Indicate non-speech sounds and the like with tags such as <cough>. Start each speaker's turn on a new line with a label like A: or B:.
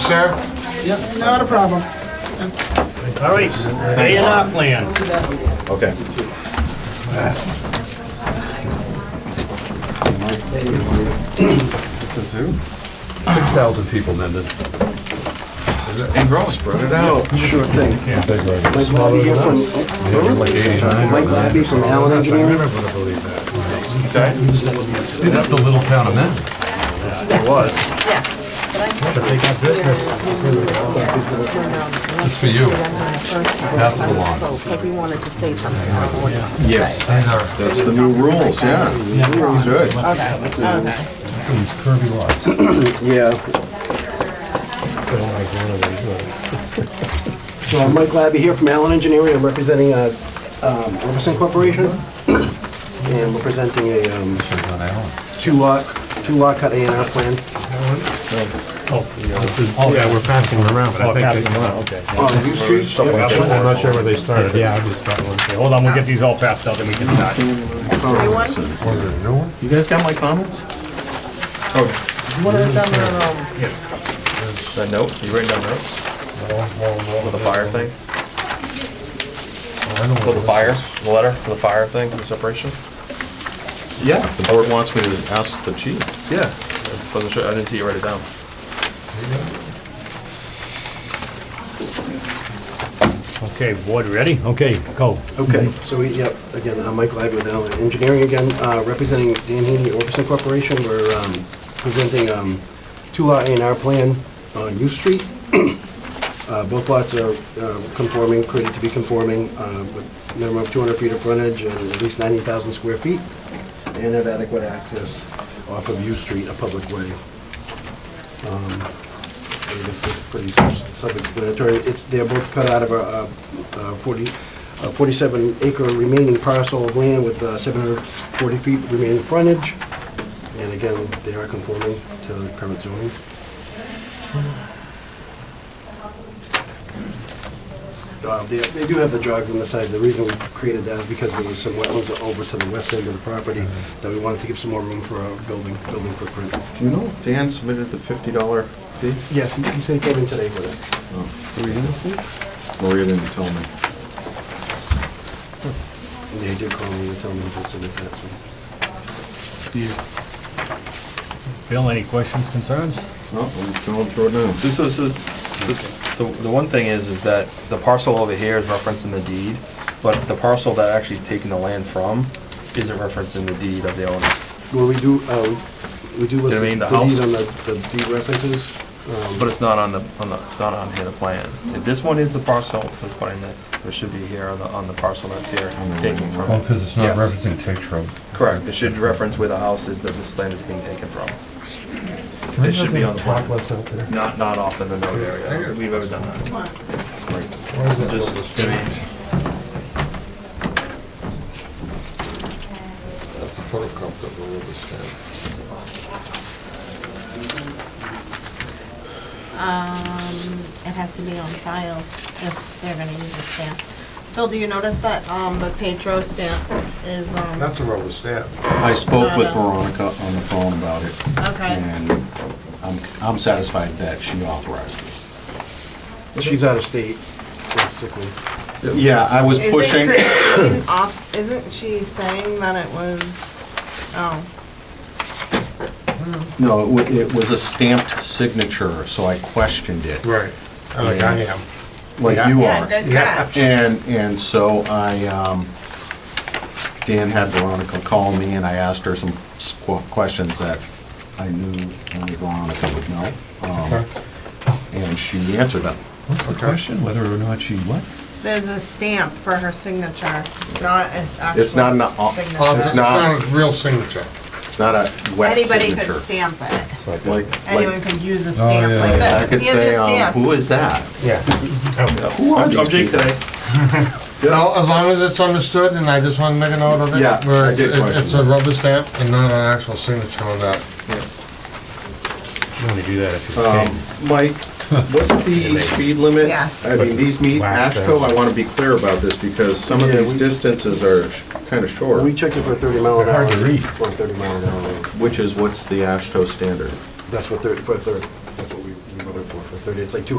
A: sir.
B: Yep, not a problem.
C: All right, stay in our plan.
A: Okay.
D: Six thousand people mended.
A: And grow. Spread it out.
E: Sure thing.
D: Big
E: Mike
D: records.
E: Labby here from,
D: Like eighty-nine.
E: Mike Labby from Allen Engineering.
A: Okay.
D: It is the little town of Mendon.
C: It was.
F: Yes.
C: But they got business.
D: This is for you. Pass it along.
F: Because we wanted to say something. I wanted to say.
A: Yes,
D: These are,
A: that's the new rules, yeah. Good.
F: Okay, okay.
D: these curvy lots.
E: Yeah. <laughs> So I'm Mike Labby here from Allen Engineering. I'm representing uh, um, Robertson Corporation. And we're presenting a um,
D: It's on Allen.
E: two-lot, two-lot cut A and R plan.
C: Oh, yeah, we're passing them around,
D: Oh,
C: but I think. Passing them around, okay.
E: On View Street.
A: Stuff like that.
C: I'm not sure where they started, yeah, I just started one. Hold on, we'll get these all passed out, then we can start.
F: Everyone?
D: What is it, a new one?
A: You guys got my comments? Oh,
C: Yes.
A: that note, you writing down notes for the fire thing?
D: I don't
A: For the
D: know.
A: fire, the letter for the fire thing, the separation? Yeah, the board wants me to ask the chief. Yeah. I just wasn't sure, I didn't see you write it down.
C: Okay, board, ready? Okay, go.
E: Okay, so we, yep, again, I'm Mike Labby with Allen Engineering again, uh, representing Dan Heaney, Orbison Corporation. We're um, presenting um, two lot A and R plan on U Street. <clears throat> Uh, Both lots are uh, conforming, created to be conforming, uh, with minimum of 200 feet of frontage and at least 90,000 square feet, and have adequate access off of U Street, a public way. I mean, This is pretty self- self-explanatory. It's, they're both cut out of a uh, uh, 40, a 47 acre remaining parcel of land with uh, 740 feet remaining frontage. And again, they are conforming to the current zoning. Uh, They they do have the jogs on the side. The reason we created that is because there was some wetlands over to the west end of the property that we wanted to give some more room for a building, building footprint.
A: Do you know if Dan submitted the fifty dollar fee?
E: Yes, you said it came in today with it.
A: Maria didn't tell me.
E: And They did call me to tell me what's in the tax.
C: Bill, any questions, concerns?
A: No, I'm just going through it now.
G: This is, the, the the one thing is, is that the parcel over here is referenced in the deed, but the parcel that actually taking the land from isn't referenced in the deed of the owner.
E: Well, we do, um, we do list the
G: mean
E: deed
G: the
E: on
G: house?
E: the, the deed references. um,
G: But it's not on the, on the, it's not on here, the plan. If This one is the parcel, the plan that, there should be here on the, on the parcel that's here, taking from.
D: Well, because it's not
G: Yes.
D: referencing Tate Road.
G: Correct, it should reference where the house is that this land is being taken from. It should be on the plan,
D: out there.
G: not, not off in the note area. We've ever done that. Just, I mean,
H: That's a photocopy of the rubber stamp.
F: Um, it has to be on file if they're gonna use a stamp. Phil, do you notice that, um, the Tetro stamp is, um,
H: That's a rubber stamp.
I: I spoke with
F: Not a-
I: Veronica on the phone about it,
F: okay,
I: and I'm I'm satisfied that she authorized this.
E: She's out of state, that's sick leave.
I: Yeah, I was
F: Isn't
I: pushing,
F: Christine off, isn't she saying that it was, oh,
I: no, it wa- it was a stamped signature, so I questioned it,
H: Right. Like I am.
I: like you
F: yeah,
I: are.
F: good
H: Yeah.
F: catch.
I: And, and so I, um, Dan had Veronica call me, and I asked her some s- qu- questions that I knew only Veronica would know, um, and she answered them.
D: What's the question? Whether or not she what?
F: There's a stamp for her signature, not an actual
I: It's not an au-
F: signature.
I: It's not-
H: It's not a real signature.
I: It's not a wet
F: Anybody
I: signature.
F: could stamp it.
I: Like- like-
F: Anyone could use a stamp
D: yeah,
F: like
D: yeah.
I: I
F: this.
I: could
F: Here's
I: say,
F: your
I: um,
F: stamp.
I: who is that?
H: Yeah.
I: Who are
G: I'm
I: these
G: Jake
I: people?
G: today.
H: No, as long as it's understood, and I just want to make a note of it.
I: Yeah,
H: where
I: I did
H: it's-
I: question
H: It's a rubber stamp and not an actual signature on that.
C: You only do that if you
I: Um,
C: can.
I: Mike, what's the speed limit?
F: Yes.
I: I mean, these meet
C: Wax them.
I: ASHTO, I want to be clear about this because some of
E: Yeah,
I: these
E: we-
I: distances are kind of short,
E: We checked it for thirty mile an hour.
C: Hard to read.
E: For a thirty mile an hour, road.
I: which is what's the ASHTO standard?
E: that's for thirty, for a thirty, that's what we we voted for, for 30, it's like 200